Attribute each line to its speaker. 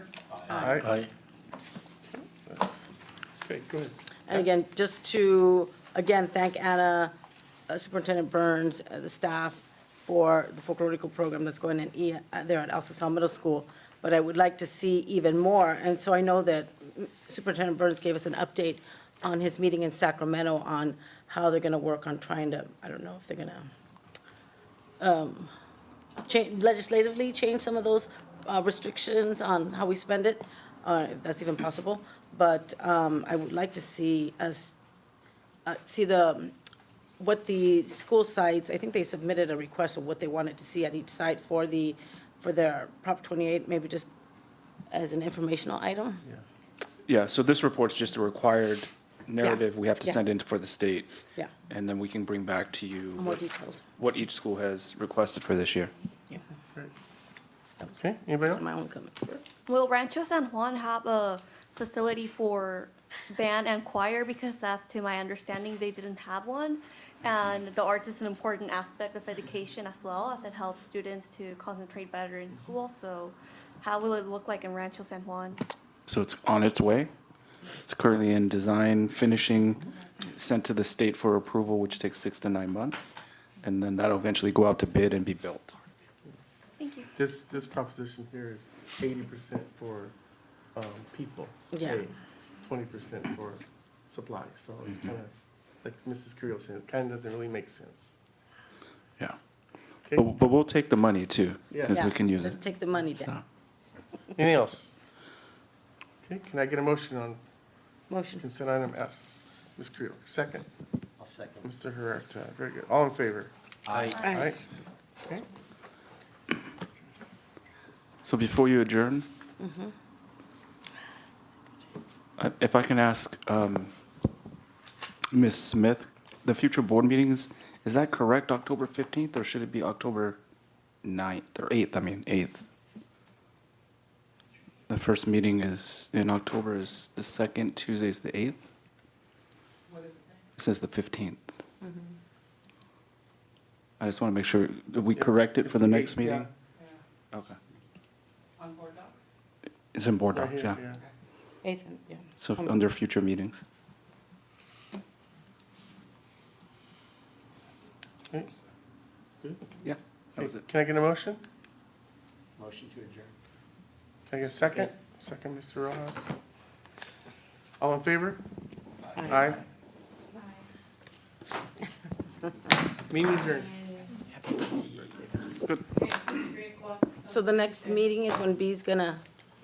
Speaker 1: Aye.
Speaker 2: Aye.
Speaker 1: Okay, go ahead.
Speaker 3: And again, just to, again, thank Anna, uh, Superintendent Burns, uh, the staff for the folklorical program that's going in E- uh, there at El Sal Middle School. But I would like to see even more. And so I know that mm, Superintendent Burns gave us an update on his meeting in Sacramento on how they're going to work on trying to, I don't know if they're going to change, legislatively change some of those uh, restrictions on how we spend it, uh, if that's even possible. But um, I would like to see us, uh, see the, what the school sites, I think they submitted a request of what they wanted to see at each site for the, for their Prop 28, maybe just as an informational item.
Speaker 4: Yeah, so this report's just a required narrative we have to
Speaker 3: yeah.
Speaker 4: send in for the state.
Speaker 3: Yeah.
Speaker 4: And then we can bring back to you.
Speaker 3: More
Speaker 4: what-
Speaker 3: details.
Speaker 4: What each school has requested for this year.
Speaker 3: Yeah,
Speaker 1: Okay, anybody else?
Speaker 3: My own comment.
Speaker 5: Will Rancho San Juan have a facility for band and choir? Because that's to my understanding, they didn't have one. And the arts is an important aspect of education as well, as it helps students to concentrate better in school. So how will it look like in Rancho San Juan?
Speaker 4: So it's on its way. It's currently in design, finishing, sent to the state for approval, which takes six to nine months. And then that'll eventually go out to bid and be built.
Speaker 5: Thank you.
Speaker 1: This, this proposition here is eighty percent for, um, people.
Speaker 3: Yeah.
Speaker 1: Twenty percent for supplies, so it's
Speaker 4: Mm-hmm.
Speaker 1: kind of, like Mrs. Creel said, it kind of doesn't really make sense.
Speaker 4: Yeah.
Speaker 1: Okay,
Speaker 4: But, but we'll take the money too,
Speaker 1: Yeah.
Speaker 4: because
Speaker 3: Yeah,
Speaker 4: we can use
Speaker 3: Let's
Speaker 4: it.
Speaker 3: take the money
Speaker 4: So,
Speaker 3: down.
Speaker 1: anything else? Okay, can I get a motion on
Speaker 3: Motion.
Speaker 1: consent item S? Ms. Creel, second.
Speaker 6: I'll second.
Speaker 1: Mr. Huerta, very good. All in favor? All right. Okay,
Speaker 4: so before you adjourn, Mm-hmm. I- if I can ask um, Ms. Smith, the future board meetings, is that correct, October 15th, or should it be October 9th, or 8th, I mean, 8th? The first meeting is, in October is the second, Tuesday is the 8th? It says the Mm-hmm. 15th. I just want to make sure, did we correct it for the next
Speaker 1: Yeah.
Speaker 4: meeting? Okay. On board docs? It's in board
Speaker 1: right
Speaker 4: docs,
Speaker 1: here,
Speaker 4: yeah.
Speaker 1: yeah.
Speaker 3: Ethan, yeah.
Speaker 4: So under future meetings.
Speaker 1: Okay. Good.
Speaker 4: Yeah, that was
Speaker 1: Okay,
Speaker 4: it.
Speaker 1: Can I get a motion?
Speaker 6: Motion to adjourn.
Speaker 1: Can I get a second? Second, Mr. Rojas. All in favor?
Speaker 3: Aye.
Speaker 1: Meeting adjourned.
Speaker 3: So the next meeting is when B's gonna